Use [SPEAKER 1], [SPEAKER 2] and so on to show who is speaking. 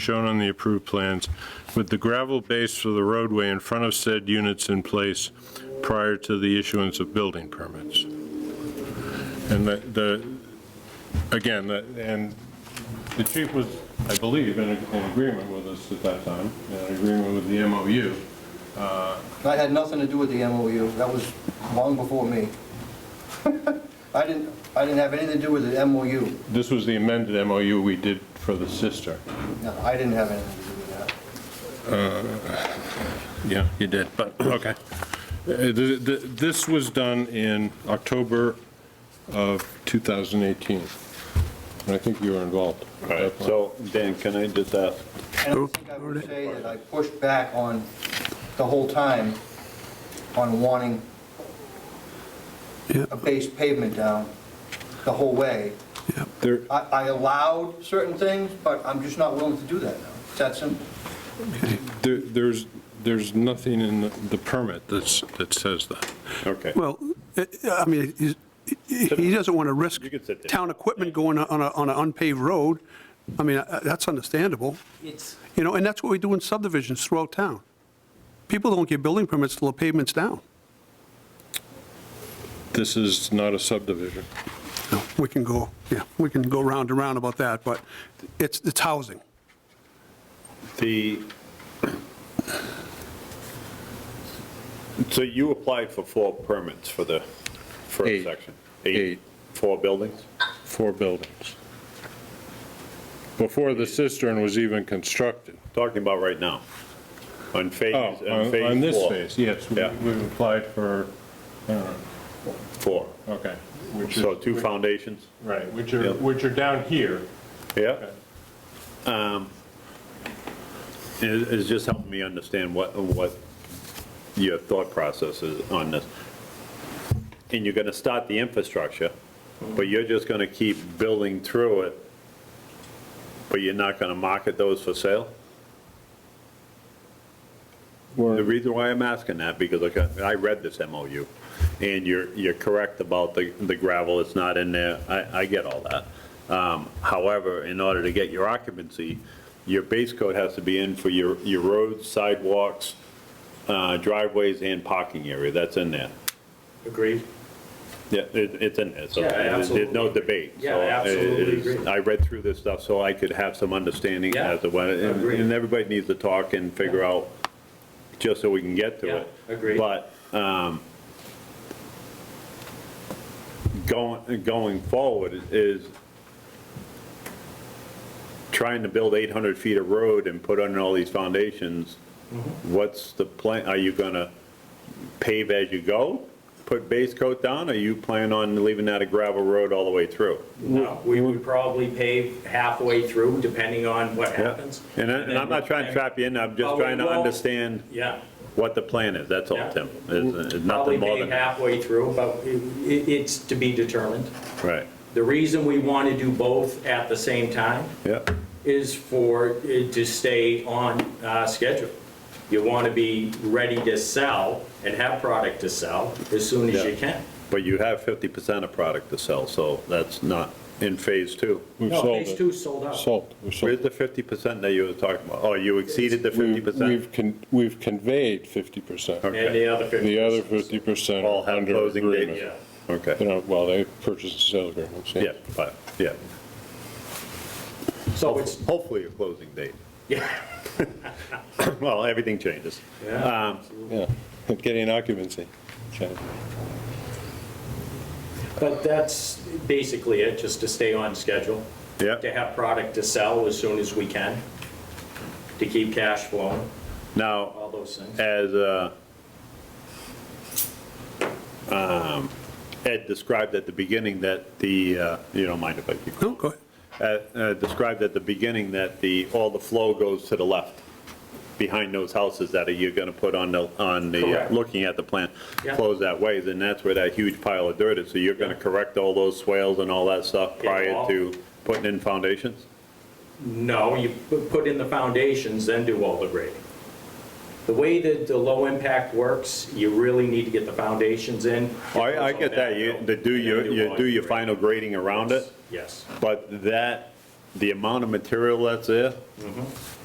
[SPEAKER 1] shown on the approved plans, with the gravel base for the roadway in front of said units in place prior to the issuance of building permits. And the- the, again, the- and the chief was, I believe, in in agreement with us at that time, in agreement with the MOU.
[SPEAKER 2] I had nothing to do with the MOU, that was long before me. I didn't, I didn't have anything to do with the MOU,
[SPEAKER 1] This was the amended MOU we did for the sister.
[SPEAKER 2] no, I didn't have anything to do with that.
[SPEAKER 1] Yeah, you did, but, okay. Uh, th- th- This was done in October of 2018, and I think you were involved.
[SPEAKER 3] Right, so Dan, can I just ask,
[SPEAKER 2] And I don't think I would say that I pushed back on, the whole time, on wanting a base pavement down the whole way.
[SPEAKER 1] There-
[SPEAKER 2] I, I allowed certain things, but I'm just not willing to do that now. It's that simple.
[SPEAKER 1] there- There's, there's nothing in the- the permit that's, that says that.
[SPEAKER 3] okay,
[SPEAKER 4] Well, eh, I mean, he's- he he doesn't want to risk
[SPEAKER 3] You can sit there.
[SPEAKER 4] town equipment going on a, on an unpaved road. I mean, eh, that's understandable,
[SPEAKER 5] It's,
[SPEAKER 4] you know, and that's what we do in subdivisions throughout town. People don't get building permits till the pavement's down.
[SPEAKER 1] This is not a subdivision.
[SPEAKER 4] No, We can go, yeah, we can go round and round about that, but it's, it's housing.
[SPEAKER 3] the, so you applied for four permits for the
[SPEAKER 1] Eight.
[SPEAKER 3] first section?
[SPEAKER 1] Eight.
[SPEAKER 3] Four buildings?
[SPEAKER 1] four buildings. Before the cistern was even constructed.
[SPEAKER 3] Talking about right now, on phase,
[SPEAKER 1] Oh,
[SPEAKER 3] on phase
[SPEAKER 1] on
[SPEAKER 3] four.
[SPEAKER 1] on this phase, yes, we-
[SPEAKER 3] Yeah.
[SPEAKER 1] we've applied for, I don't know,
[SPEAKER 3] Four,
[SPEAKER 1] okay. Which
[SPEAKER 3] so
[SPEAKER 1] is,
[SPEAKER 3] two foundations,
[SPEAKER 1] right, which are,
[SPEAKER 3] Yeah.
[SPEAKER 1] which are down here.
[SPEAKER 3] yeah? Um, It, it's just helping me understand what, what your thought process is on this. And you're gonna start the infrastructure, but you're just gonna keep building through it, but you're not gonna market those for sale? The reason why I'm asking that, because like, I I read this MOU, and you're, you're correct about the the gravel, it's not in there, I, I get all that. Um, However, in order to get your occupancy, your base coat has to be in for your, your roads, sidewalks, uh, driveways, and parking area, that's in there.
[SPEAKER 6] Agreed.
[SPEAKER 3] Yeah, it, it's in there, so
[SPEAKER 6] Yeah, I
[SPEAKER 3] there's there's no
[SPEAKER 6] absolutely
[SPEAKER 3] debate.
[SPEAKER 6] Yeah,
[SPEAKER 3] so
[SPEAKER 6] I
[SPEAKER 3] it-
[SPEAKER 6] absolutely
[SPEAKER 3] it is-
[SPEAKER 6] agree.
[SPEAKER 3] I read through this stuff so I could have some understanding
[SPEAKER 6] Yeah,
[SPEAKER 3] as to what, and
[SPEAKER 6] agreed.
[SPEAKER 3] and everybody needs to talk and figure out, just so we can get to
[SPEAKER 6] Yeah,
[SPEAKER 3] it.
[SPEAKER 6] agreed.
[SPEAKER 3] But, um, going, going forward is trying to build 800 feet of road and put under all these foundations,
[SPEAKER 6] Mm-hmm.
[SPEAKER 3] what's the plan, are you gonna pave as you go? Put base coat down, or you plan on leaving that a gravel road all the way through?
[SPEAKER 6] No, we would probably pave halfway through, depending on what
[SPEAKER 3] Yeah.
[SPEAKER 6] happens.
[SPEAKER 3] And I- and I'm not trying to trap you in, I'm just
[SPEAKER 6] Oh,
[SPEAKER 3] trying to
[SPEAKER 6] well-
[SPEAKER 3] understand
[SPEAKER 6] Yeah,
[SPEAKER 3] what the plan is, that's all,
[SPEAKER 6] Yeah.
[SPEAKER 3] Tim. It's- it's
[SPEAKER 6] probably
[SPEAKER 3] Nothing more
[SPEAKER 6] pave
[SPEAKER 3] than,
[SPEAKER 6] halfway through, but it- it- it's to be determined.
[SPEAKER 3] right,
[SPEAKER 6] The reason we want to do both at the same time
[SPEAKER 3] yeah,
[SPEAKER 6] is for it to stay on uh, schedule. You want to be ready to sell and have product to sell as soon as you can.
[SPEAKER 3] but you have 50% of product to sell, so that's not in phase two.
[SPEAKER 1] We've
[SPEAKER 6] No,
[SPEAKER 1] sold
[SPEAKER 6] phase two
[SPEAKER 1] it.
[SPEAKER 6] sold out.
[SPEAKER 1] Sold, we sold.
[SPEAKER 3] Where's the 50% that you were talking about? Oh, you exceeded the
[SPEAKER 1] We've-
[SPEAKER 3] 50%?
[SPEAKER 1] We've, con- we've conveyed 50%.
[SPEAKER 3] Okay.
[SPEAKER 6] And the other 50%.
[SPEAKER 1] The other 50%
[SPEAKER 3] All
[SPEAKER 1] are
[SPEAKER 3] have
[SPEAKER 1] under
[SPEAKER 3] closing
[SPEAKER 1] agreement.
[SPEAKER 3] dates?
[SPEAKER 6] Yeah.
[SPEAKER 1] You
[SPEAKER 3] Okay,
[SPEAKER 1] know, well, they purchase and sale agreements.
[SPEAKER 3] yeah, but, yeah.
[SPEAKER 6] So it's,
[SPEAKER 3] Hopefully a closing date.
[SPEAKER 6] yeah.
[SPEAKER 3] Well, everything changes.
[SPEAKER 6] Yeah.
[SPEAKER 3] Um,
[SPEAKER 1] Yeah, getting occupancy. Okay.
[SPEAKER 6] But that's basically it, just to stay on schedule.
[SPEAKER 3] Yeah.
[SPEAKER 6] To have product to sell as soon as we can, to keep cash flowing,
[SPEAKER 3] Now,
[SPEAKER 6] all those things.
[SPEAKER 3] as uh, um, Ed described at the beginning, that the, uh, you don't mind if I keep
[SPEAKER 4] No, go ahead.
[SPEAKER 3] uh, uh, described at the beginning that the, all the flow goes to the left, behind those houses that are- you're going to put on the, on the, uh,
[SPEAKER 6] Correct.
[SPEAKER 3] looking at the plan,
[SPEAKER 6] Yeah.
[SPEAKER 3] flows that way, then that's where that huge pile of dirt is. So you're going to correct all those swales and all that stuff
[SPEAKER 6] Yeah,
[SPEAKER 3] prior
[SPEAKER 6] all-
[SPEAKER 3] to putting in foundations?
[SPEAKER 6] No, you pu- put in the foundations, then do all the grading. The way that the low impact works, you really need to get the foundations in.
[SPEAKER 3] Oh, I, I get that, you, to do
[SPEAKER 6] And then
[SPEAKER 3] your, you
[SPEAKER 6] all
[SPEAKER 3] do your
[SPEAKER 6] grading.
[SPEAKER 3] final grading around it,
[SPEAKER 6] Yes,
[SPEAKER 3] but that the amount of material that's there,